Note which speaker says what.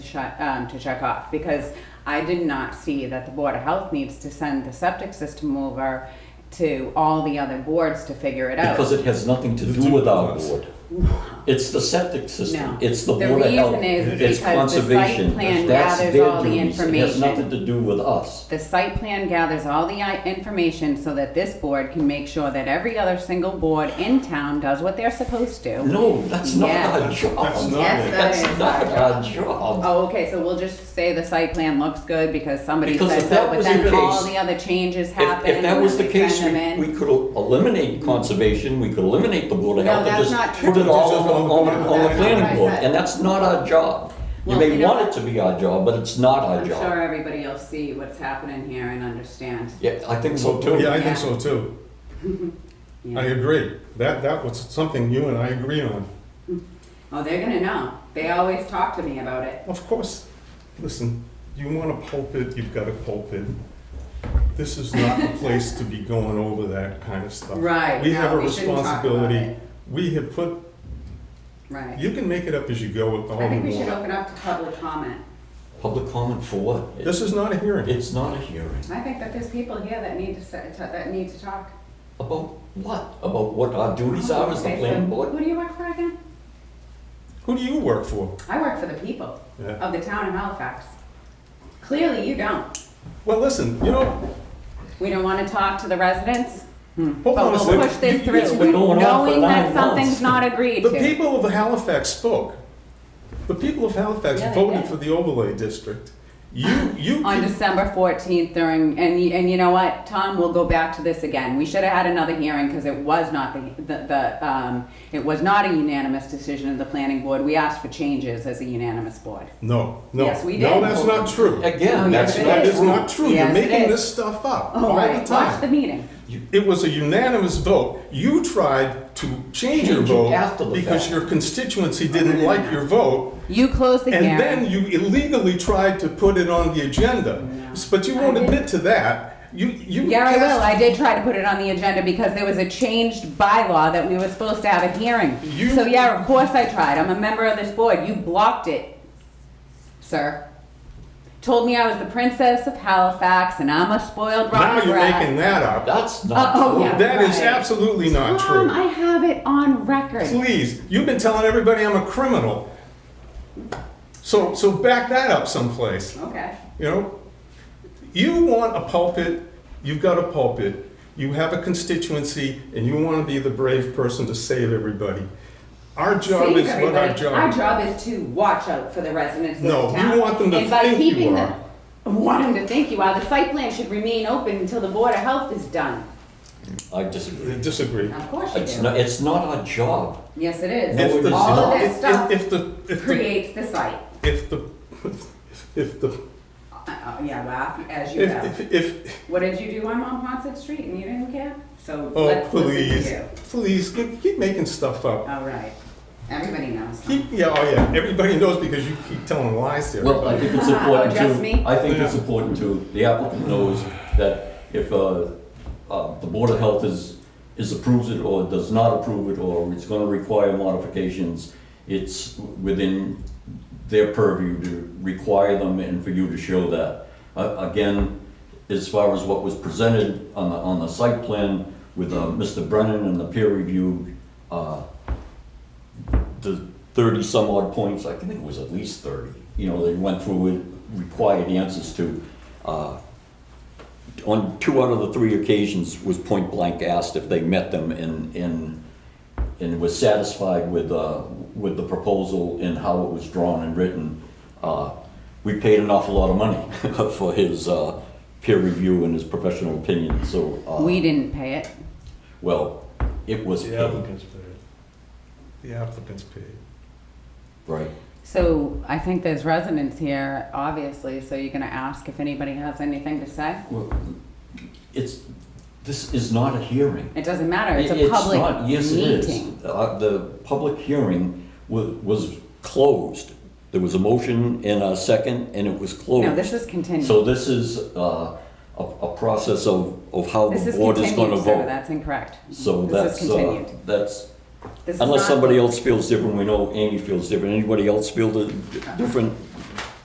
Speaker 1: check, um, to check off, because I did not see that the Board of Health needs to send the septic system over to all the other boards to figure it out.
Speaker 2: Because it has nothing to do with our board. It's the septic
Speaker 1: No.
Speaker 2: system, it's the
Speaker 1: The
Speaker 2: board of health,
Speaker 1: reason is because
Speaker 2: it's
Speaker 1: the site
Speaker 2: conservation,
Speaker 1: plan
Speaker 2: that's
Speaker 1: gathers
Speaker 2: their
Speaker 1: all the
Speaker 2: duties, it has
Speaker 1: information.
Speaker 2: nothing to do with us.
Speaker 1: The site plan gathers all the i- information so that this board can make sure that every other single board in town does what they're supposed to.
Speaker 2: No, that's not
Speaker 1: Yeah.
Speaker 2: our job.
Speaker 3: That's not
Speaker 1: Yes, it. that
Speaker 2: That's
Speaker 1: is
Speaker 2: not
Speaker 1: our
Speaker 2: our job.
Speaker 1: Oh, okay, so we'll just say the site plan looks good because somebody
Speaker 2: Because
Speaker 1: says
Speaker 2: if that
Speaker 1: so, but
Speaker 2: was the
Speaker 1: then all
Speaker 2: case-
Speaker 1: the other changes
Speaker 2: If,
Speaker 1: happen.
Speaker 2: if that
Speaker 1: and
Speaker 2: was the
Speaker 1: we
Speaker 2: case,
Speaker 1: send them
Speaker 2: we,
Speaker 1: in.
Speaker 2: we could eliminate conservation, we could eliminate the board of
Speaker 1: No,
Speaker 2: health, and
Speaker 1: that's
Speaker 2: just
Speaker 1: not true.
Speaker 2: put it all on, the- on the- on the
Speaker 1: That's not what I
Speaker 2: planning board,
Speaker 1: said.
Speaker 2: and that's not our job. You
Speaker 1: Well, you
Speaker 2: may
Speaker 1: know
Speaker 2: want it
Speaker 1: what?
Speaker 2: to be our job, but it's not our
Speaker 1: I'm
Speaker 2: job.
Speaker 1: sure everybody will see what's happening here and understand.
Speaker 2: Yeah, I think so too.
Speaker 3: Yeah, I think so too. I
Speaker 1: Yeah.
Speaker 3: agree. That, that was something you and I agree on.
Speaker 1: Oh, they're gonna know. They always talk to me about it.
Speaker 3: Of course, listen, you want a pulpit, you've got a pulpit. This is not the place to be going over that kind of stuff.
Speaker 1: Right,
Speaker 3: We have
Speaker 1: no,
Speaker 3: a
Speaker 1: we shouldn't talk about
Speaker 3: responsibility.
Speaker 1: it.
Speaker 3: We have put,
Speaker 1: Right.
Speaker 3: you Oh. can make it up as you go with the
Speaker 1: I
Speaker 3: whole
Speaker 1: think we should
Speaker 3: board.
Speaker 1: open up to public comment.
Speaker 2: Public comment for what? It-
Speaker 3: This is not a hearing.
Speaker 2: It's not a hearing.
Speaker 1: I think that there's people here that need to, sa- to- that need to talk.
Speaker 2: About what? About what our duties are as the
Speaker 1: Okay, so
Speaker 2: planning board?
Speaker 1: Who do you work for again?
Speaker 3: Who do you work for?
Speaker 1: I work for the people
Speaker 3: Yeah.
Speaker 1: of the town of Halifax. Clearly, you don't.
Speaker 3: Well, listen, you know,
Speaker 1: We don't want to talk to the residents. Hmm.
Speaker 3: Hold on a
Speaker 1: But we'll
Speaker 3: second.
Speaker 1: push this
Speaker 3: You- you- it's
Speaker 1: through,
Speaker 2: been going on for
Speaker 1: knowing that
Speaker 2: nine months.
Speaker 1: something's not agreed
Speaker 3: the
Speaker 1: to.
Speaker 3: people of Halifax spoke. The people of Halifax
Speaker 1: Yeah, they
Speaker 3: voted
Speaker 1: did.
Speaker 3: for the overlay district. You, you.
Speaker 1: On
Speaker 3: keep-
Speaker 1: December fourteenth during, and, y- and you know what, Tom, we'll go back to this again. We should have had another hearing because it was not the, the, the, um, it was not a unanimous decision of the planning board. We asked for changes as a unanimous board.
Speaker 3: No, no.
Speaker 1: Yes, we
Speaker 3: No,
Speaker 1: did.
Speaker 3: that's not true.
Speaker 1: Oh,
Speaker 2: Again,
Speaker 1: yes,
Speaker 2: that's
Speaker 3: That's
Speaker 1: it
Speaker 3: not,
Speaker 2: not
Speaker 1: is.
Speaker 3: it's
Speaker 2: true.
Speaker 3: not true. You're
Speaker 1: Yes, it
Speaker 3: making
Speaker 1: is.
Speaker 3: this stuff up
Speaker 1: Oh,
Speaker 3: all the
Speaker 1: right, watch the
Speaker 3: time.
Speaker 1: meeting.
Speaker 3: It was a unanimous vote. You tried to change your
Speaker 2: Change it
Speaker 3: vote
Speaker 2: after the
Speaker 3: because
Speaker 2: fact.
Speaker 3: your constituency didn't like your vote.
Speaker 1: You closed the
Speaker 3: And
Speaker 1: hearing.
Speaker 3: then you illegally tried to put it on the agenda. S- But you won't
Speaker 1: I did.
Speaker 3: admit to that. You, you.
Speaker 1: Yeah, I will.
Speaker 3: cast-
Speaker 1: I did try to put it on the agenda because there was a changed bylaw that we were supposed to have a hearing.
Speaker 3: You-
Speaker 1: So yeah, of course I tried. I'm a member of this board. You blocked it, sir. Told me I was the princess of Halifax and I'm a spoiled
Speaker 3: Now
Speaker 1: rotten
Speaker 3: you're
Speaker 1: brat.
Speaker 3: making that up.
Speaker 2: That's
Speaker 1: Uh-oh,
Speaker 2: not true.
Speaker 1: Oh, yeah.
Speaker 3: That is
Speaker 1: right.
Speaker 3: absolutely not
Speaker 1: Tom,
Speaker 3: true.
Speaker 1: Um, I have it on record.
Speaker 3: Please, you've been telling everybody I'm a criminal. So, so back that up someplace.
Speaker 1: Okay.
Speaker 3: You know, you want a pulpit, you've got a pulpit, you have a constituency, and you want to be the brave person to save everybody. Our job
Speaker 1: Save
Speaker 3: is what our
Speaker 1: everybody. Our
Speaker 3: job.
Speaker 1: job is to watch out for the residents of
Speaker 3: No,
Speaker 1: this
Speaker 3: we
Speaker 1: town.
Speaker 3: want them to
Speaker 1: And by
Speaker 3: think you
Speaker 1: keeping them-
Speaker 3: are.
Speaker 1: Want them to think you are. The site plan should remain open until the Board of Health is done.
Speaker 2: I
Speaker 3: I
Speaker 2: disagree.
Speaker 3: disagree.
Speaker 1: Of course you
Speaker 2: It's
Speaker 1: do.
Speaker 2: not, it's not our job.
Speaker 1: Yes, it is.
Speaker 2: No,
Speaker 3: If
Speaker 2: it
Speaker 3: the-
Speaker 2: is
Speaker 1: All of
Speaker 2: not.
Speaker 1: this
Speaker 3: if-
Speaker 1: stuff
Speaker 3: If if the, if the,
Speaker 1: creates the site.
Speaker 3: if the, if the,
Speaker 1: Uh, uh, yeah, laugh as you
Speaker 3: if,
Speaker 1: go.
Speaker 3: if- if,
Speaker 1: What did you do on Monpont Street and you didn't care? So
Speaker 3: oh,
Speaker 1: let's listen to
Speaker 3: please,
Speaker 1: you.
Speaker 3: please, you keep making stuff up.
Speaker 1: All right. Everybody knows.
Speaker 3: Keep, yeah, oh yeah, everybody knows because you keep telling lies to
Speaker 2: Well, I
Speaker 3: everybody.
Speaker 2: think it's
Speaker 1: Oh,
Speaker 2: important
Speaker 1: just me?
Speaker 2: to, I think it's
Speaker 3: Yeah.
Speaker 2: important to, the applicant knows that if, uh, uh, the Board of Health is, is approves it or does not approve it, or it's gonna require modifications, it's within their purview to require them and for you to show that. Uh, again, as far as what was presented on the, on the site plan with, uh, Mr. Brennan and the peer review, uh, the thirty some odd points, I think it was at least thirty, you know, they went through it, required answers to. uh, On two out of the three occasions was point blank asked if they met them and, and, and was satisfied with, uh, with the proposal and how it was drawn and written. Uh, We paid an awful lot of money for his uh, peer review and his professional opinion, so, uh,
Speaker 1: We didn't pay it.
Speaker 2: well, it was
Speaker 3: The
Speaker 2: paid,
Speaker 3: applicant's paid. The applicant's paid.
Speaker 2: right?
Speaker 1: So I think there's residents here, obviously, so you're gonna ask if anybody has anything to say?
Speaker 2: Well, It's, this is not a hearing.
Speaker 1: It doesn't matter, it's a
Speaker 2: It-
Speaker 1: public
Speaker 2: not- Yes, it is.
Speaker 1: meeting.
Speaker 2: Uh, The public hearing wa- was closed. There was a motion and a second, and it was closed.
Speaker 1: No, this is continued.
Speaker 2: So this is uh, a a process of of how
Speaker 1: This
Speaker 2: the
Speaker 1: is
Speaker 2: board is going
Speaker 1: continued,
Speaker 2: to
Speaker 1: sir,
Speaker 2: vote.
Speaker 1: that's incorrect.
Speaker 2: So
Speaker 1: This is
Speaker 2: that's, uh,
Speaker 1: continued.
Speaker 2: that's,
Speaker 1: This is
Speaker 2: unless
Speaker 1: not-
Speaker 2: somebody else feels different, we know Amy feels different, anybody else feel di- different?